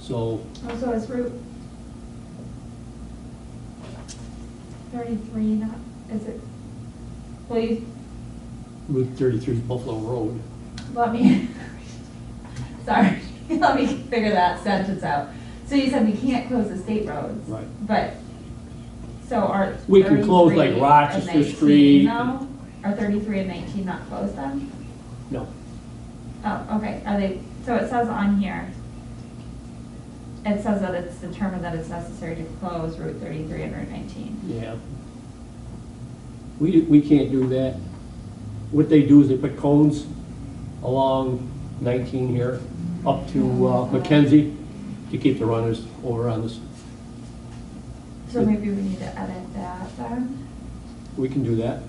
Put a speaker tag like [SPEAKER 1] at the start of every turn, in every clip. [SPEAKER 1] So,
[SPEAKER 2] Oh, so it's Route thirty-three, not, is it? Will you
[SPEAKER 1] Route thirty-three Buffalo Road,
[SPEAKER 2] let me, sorry, let me figure that sentence out. So you said we can't close the state roads.
[SPEAKER 1] Right.
[SPEAKER 2] But, so are
[SPEAKER 1] We can close, like,
[SPEAKER 2] 33 and
[SPEAKER 1] Rochester
[SPEAKER 2] 19
[SPEAKER 1] Street.
[SPEAKER 2] No, are thirty-three and nineteen not closed then?
[SPEAKER 1] no,
[SPEAKER 2] Oh, okay, are they, so it says on here, it says that it's determined that it's necessary to close Route thirty-three and Route nineteen.
[SPEAKER 1] yeah. We, we can't do that. What they do is they put cones along nineteen here, up to uh, Mackenzie, to keep the runners over on this.
[SPEAKER 2] So maybe we need to edit that then?
[SPEAKER 1] We can do that.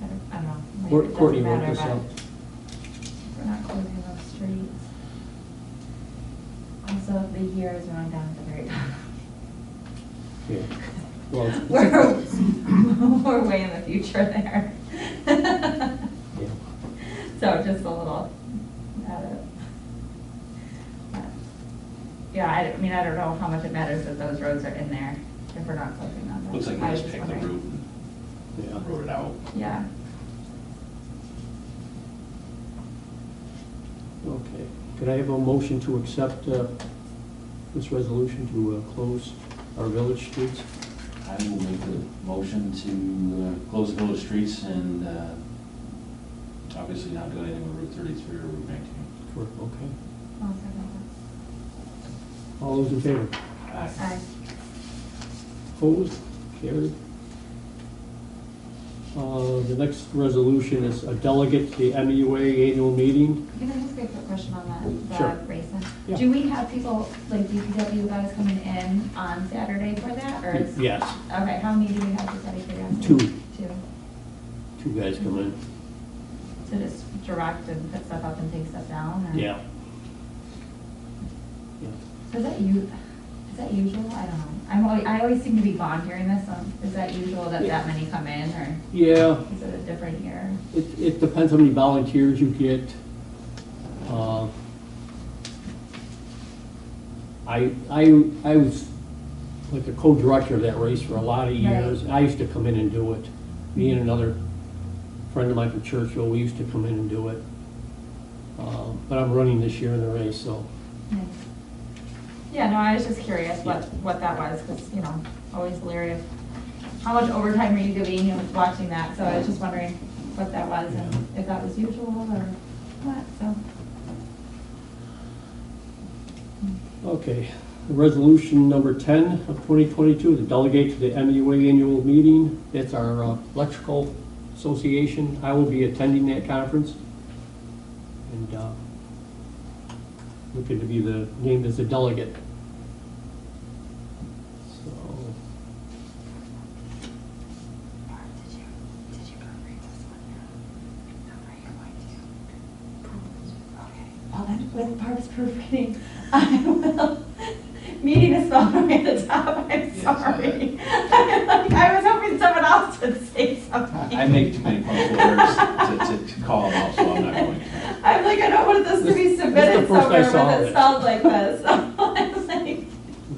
[SPEAKER 2] I don't- I don't know. maybe
[SPEAKER 1] Cour-
[SPEAKER 2] it doesn't
[SPEAKER 1] Courtney wrote
[SPEAKER 2] matter,
[SPEAKER 1] this
[SPEAKER 2] but-
[SPEAKER 1] up.
[SPEAKER 2] We're not closing those streets. Also, the year is running down at the very top.
[SPEAKER 1] Yeah. Well, it's-
[SPEAKER 2] We're, we're way in the future there.
[SPEAKER 1] yeah.
[SPEAKER 2] So just a little, edit. But, Yeah, I, don't- I mean, I don't know how much it matters that those roads are in there if we're not closing them.
[SPEAKER 3] Looks like we
[SPEAKER 2] I was
[SPEAKER 3] just picked the
[SPEAKER 2] wondering.
[SPEAKER 3] route
[SPEAKER 1] Yeah.
[SPEAKER 3] and wrote it out.
[SPEAKER 2] Yeah.
[SPEAKER 1] Okay, could I have a motion to accept uh, this resolution to uh, close our village streets?
[SPEAKER 3] I will make the motion to uh, close the village streets and uh, obviously not do anything with Route 33 or Route 19.
[SPEAKER 1] Correct, okay.
[SPEAKER 2] I'll second
[SPEAKER 1] All those in favor?
[SPEAKER 3] Aye.
[SPEAKER 2] that. Aye.
[SPEAKER 1] Opposed? Carried. Uh, The next resolution is a delegate to the MEUA annual meeting.
[SPEAKER 2] Can I just ask a quick question on that,
[SPEAKER 1] Sure.
[SPEAKER 2] the racing?
[SPEAKER 1] Yeah.
[SPEAKER 2] Do we have people, like DPW guys coming in on Saturday for that, or is?
[SPEAKER 1] Yes,
[SPEAKER 2] Okay, how many do we have, just out of curiosity?
[SPEAKER 1] Two.
[SPEAKER 2] Two.
[SPEAKER 1] two guys come in.
[SPEAKER 2] So just direct and put stuff up and take stuff down, or?
[SPEAKER 1] Yeah. Yeah.
[SPEAKER 2] So Is that you, is that usual? I don't know. I'm, alwa- I always seem to be gone during this, um, is that usual that
[SPEAKER 1] Yeah.
[SPEAKER 2] that many come in, or
[SPEAKER 1] Yeah,
[SPEAKER 2] is it a different year?
[SPEAKER 1] it, it depends how many volunteers you get. Uh, I, I, I was like the co-director of that race for a lot of years. I used to come in and do it. Me and another friend of mine from Churchill, we used to come in and do it. Uh, But I'm running this year in the race, so,
[SPEAKER 2] Nice. Yeah, no, I was just curious what,
[SPEAKER 1] Yeah.
[SPEAKER 2] what that was, because, you know, always leery of how much overtime were you giving and watching that, so I was just wondering what that was and if that was usual or what, so.
[SPEAKER 1] okay. Resolution number 10 of 2022, the delegate to the MUA annual meeting. That's our uh, electrical association. I will be attending that conference. And uh, looking to be the, named as a delegate. So,
[SPEAKER 4] Barb, did you, did you program this one? No, are you going to? Okay.
[SPEAKER 2] Well, then, with Barb's proofreading, I will, meeting is spelled right at the top, I'm
[SPEAKER 3] Yes, I-
[SPEAKER 2] sorry. I was hoping someone else would say something.
[SPEAKER 3] I I make too many puns words to- to call them out, so I'm not going to.
[SPEAKER 2] I'm like, I don't want this to be
[SPEAKER 1] This- this is the
[SPEAKER 2] submitted
[SPEAKER 1] first I
[SPEAKER 2] somewhere
[SPEAKER 1] saw
[SPEAKER 2] when
[SPEAKER 1] it.
[SPEAKER 2] it sounds like this. I'm like,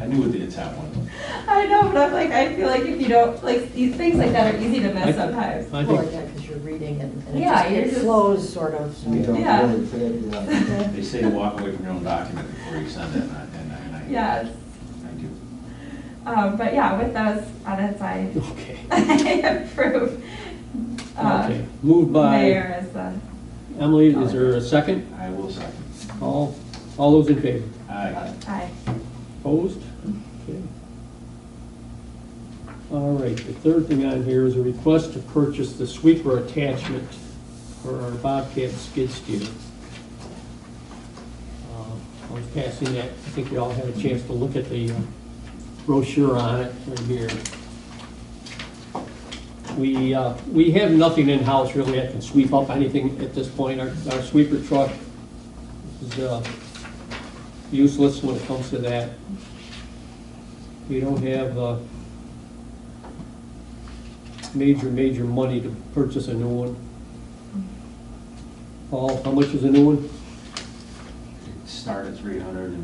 [SPEAKER 3] I knew what the intent was.
[SPEAKER 2] I know, but I'm like, I feel like if you don't, like, these things like that are easy to
[SPEAKER 1] I-
[SPEAKER 2] miss sometimes.
[SPEAKER 1] I
[SPEAKER 5] Well, like
[SPEAKER 1] think,
[SPEAKER 5] that, because you're reading and and it
[SPEAKER 2] Yeah,
[SPEAKER 5] just,
[SPEAKER 2] you're
[SPEAKER 5] it
[SPEAKER 2] just-
[SPEAKER 5] flows sort of. so-
[SPEAKER 6] We don't
[SPEAKER 2] Yeah.
[SPEAKER 6] really fit in that.
[SPEAKER 3] They say to walk away from your own document before you send it, and I, and I- and I.
[SPEAKER 2] Yes,
[SPEAKER 3] I do.
[SPEAKER 2] um, but yeah, with those on its side,
[SPEAKER 1] okay.
[SPEAKER 2] I approve. uh,
[SPEAKER 1] Okay. Moved by
[SPEAKER 2] Mayor as the,
[SPEAKER 1] Emily, is there a second?
[SPEAKER 3] I will second.
[SPEAKER 1] All, all those in favor?
[SPEAKER 3] Aye.
[SPEAKER 2] uh, aye.
[SPEAKER 1] Opposed? Okay. All right, the third thing on here is a request to purchase the sweeper attachment for our Bobcat skid steer. Uh, I was passing that, I think you all had a chance to look at the uh, brochure on it right here. We, uh, we have nothing in-house really that can sweep up anything at this point. Our our sweeper truck is uh, useless when it comes to that. We don't have, uh, major, major money to purchase a new one. Paul, how much is a new one?
[SPEAKER 3] Start at three hundred and